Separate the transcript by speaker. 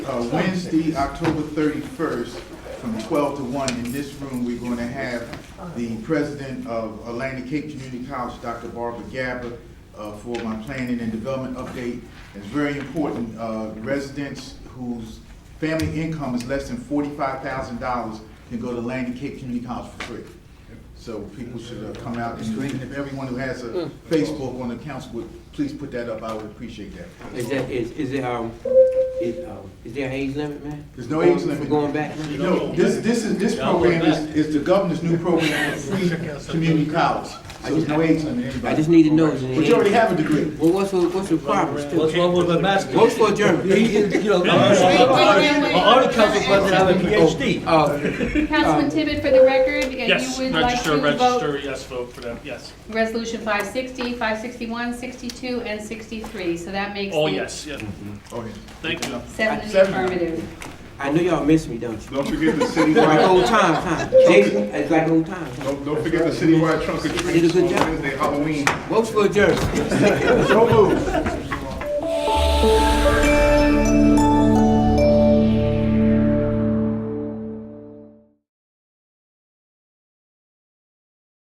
Speaker 1: uh, Wednesday, October 31st, from 12 to 1, in this room, we're going to have the president of Atlantic Cape Community College, Dr. Barbara Gabba, uh, for my planning and development update. It's very important, uh, residents whose family income is less than $45,000 can go to Atlantic Cape Community College for free. So people should uh, come out, and if everyone who has a Facebook on the council would, please put that up, I would appreciate that.
Speaker 2: Is that, is, is there, um, is, um, is there an age limit, man?
Speaker 1: There's no
Speaker 2: For-
Speaker 1: age limit.
Speaker 2: For going back? man?
Speaker 1: No, this, this is, this program is, is the governor's new program for free community college. So there's no age limit,
Speaker 2: I
Speaker 1: anybody.
Speaker 2: just need to know. is there
Speaker 1: But you already
Speaker 2: any-
Speaker 1: have a degree.
Speaker 2: Well, what's, the- what's the problem
Speaker 3: What's
Speaker 2: still?
Speaker 3: wrong with my master?
Speaker 2: Vote for German. You know,
Speaker 3: My only council president have a PhD.
Speaker 2: uh,
Speaker 4: Councilman Tibbet, for the record, and
Speaker 5: Yes,
Speaker 4: you would like
Speaker 5: register,
Speaker 4: to vote
Speaker 5: register, yes, vote for them, yes.
Speaker 4: Resolution 560, 561, 62, and 63, so that makes
Speaker 5: All
Speaker 4: it
Speaker 5: yes, yes.
Speaker 1: Oh, yeah.
Speaker 5: Thank you.
Speaker 4: seven in the
Speaker 1: Seven.
Speaker 4: affirmative.
Speaker 2: I know y'all miss me, don't you?
Speaker 6: Don't forget the
Speaker 2: Like
Speaker 6: citywide,
Speaker 2: old times, huh? Jason, it's like old times. huh?
Speaker 6: don't, don't forget the citywide trunk of
Speaker 2: I did a
Speaker 6: treats
Speaker 2: good
Speaker 6: on
Speaker 2: job.
Speaker 6: Wednesday, Halloween.
Speaker 2: Vote for German.
Speaker 6: So moved.